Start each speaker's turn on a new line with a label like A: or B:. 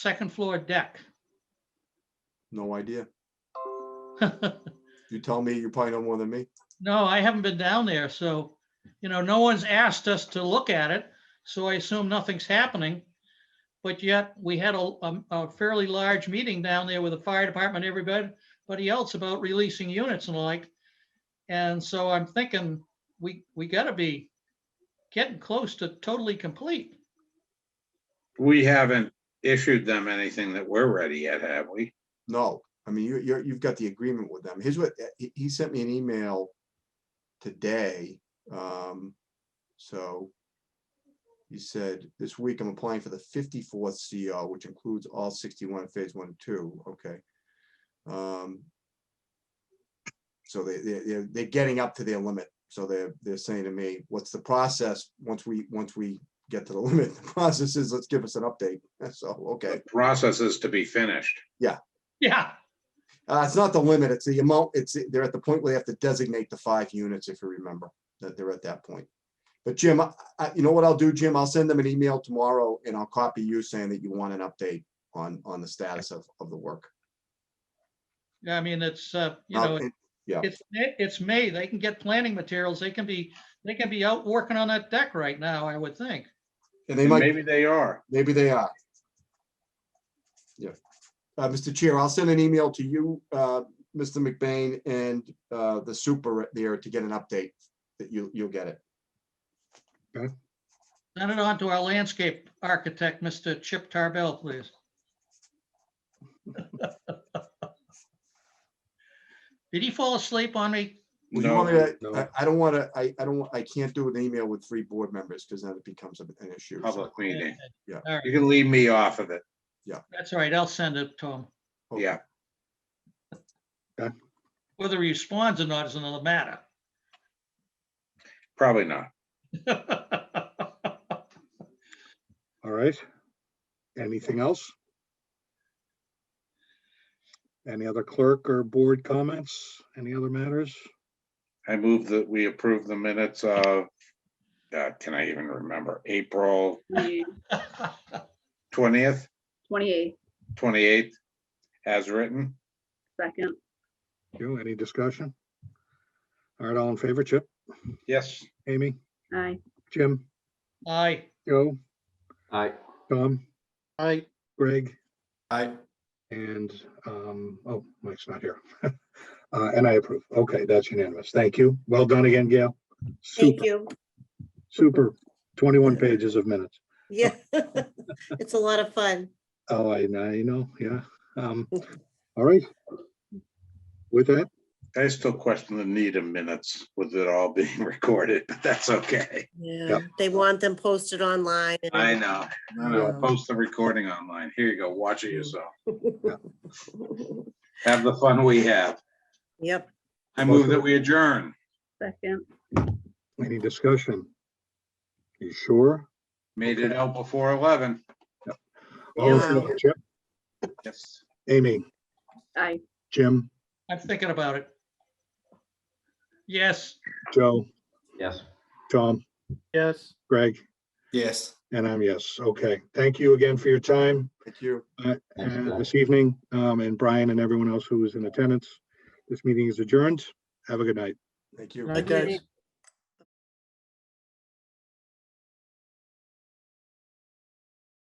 A: second floor deck?
B: No idea. You tell me, you probably know more than me.
A: No, I haven't been down there, so, you know, no one's asked us to look at it, so I assume nothing's happening. But yet, we had a, a- a fairly large meeting down there with the fire department, everybody, everybody else about releasing units and the like. And so I'm thinking, we, we gotta be getting close to totally complete.
C: We haven't issued them anything that we're ready yet, have we?
B: No, I mean, you, you're, you've got the agreement with them. Here's what, he, he sent me an email today. Um, so he said, this week I'm applying for the fifty-fourth CO, which includes all sixty-one phase one and two, okay. Um, so they, they, they're, they're getting up to their limit. So they're, they're saying to me, what's the process? Once we, once we get to the limit, the process is, let's give us an update. So, okay.
C: The process is to be finished.
A: Yeah,
B: Uh, it's not the limit, it's the amount, it's, they're at the point where they have to designate the five units, if you remember, that they're at that point. But Jim, I, I- you know what I'll do, Jim? I'll send them an email tomorrow and I'll copy you saying that you want an update on, on the status of, of the work.
A: I mean, it's, uh, you
B: I'll-
A: know,
B: and-
A: it's, May- it's May, they can get planning materials, they can be, they can be out working on that deck right now, I would think.
B: And they
C: And
B: might,
C: Maybe they are.
B: maybe they are. Yeah. Uh, Mr. Chair, I'll send an email to you, uh, Mr. McBain and, uh, the super there to get an update that you, you'll get it.
A: Send it on to our landscape architect, Mr. Chip Tarbell, please. Did he fall asleep on me?
B: Well, you
C: No,
B: want me to-
C: no.
B: I, I don't want to, I, I don't, wa- I can't do an email with three board members because then it becomes an an issue. so-
C: Public meeting.
B: Yeah.
A: All right,
C: You can leave me off of it.
A: that's all right, I'll send it to him.
B: okay.
C: Yeah.
A: Whether he responds or not is another matter.
C: Probably not.
D: All right. Anything else? Any other clerk or board comments? Any other matters?
C: I move that we approve the minutes of, uh, can I even remember, April twentieth,
E: Twenty-eight,
C: twenty-eighth, as written?
E: second,
D: You, any discussion? All right, all in favor, Chip,
C: Yes.
D: Amy,
E: aye.
D: Jim,
A: Aye,
D: Joe,
F: Aye.
D: Tom,
A: aye,
D: Greg,
F: Aye.
D: and, um, oh, Mike's not here. Uh, and I approve. Okay, that's unanimous. Thank you. Well done again, Gail.
G: Thank
D: Super,
G: you.
D: super. Twenty-one pages of minutes.
G: Yeah, it's a lot of fun.
D: Oh, I know, you know, yeah. Um, all right. With that,
C: I still question the need of minutes with it all being recorded, but that's okay.
G: Yeah, they want them posted online. and-
C: I know. I know.
G: Yeah.
C: Post the recording online. Here you go. Watch it yourself. Have the fun we have.
G: Yep,
C: I move that we adjourn.
E: Second,
D: any discussion? You sure?
C: Made it out before eleven.
D: All in
G: Yeah.
D: favor, Chip,
C: Yes.
D: Oh, Amy,
E: aye.
D: Jim,
A: I'm thinking about it. Yes.
D: Joe,
F: Yes.
D: Tom,
A: Yes.
D: Greg,
F: Yes.
D: and I'm yes. Okay, thank you again for your time
B: Thank you.
F: Thanks,
D: uh,
F: guys.
D: this evening, um, and Brian and everyone else who was in attendance. This meeting is adjourned. Have a good night.
B: Thank you.
A: Aye. guys.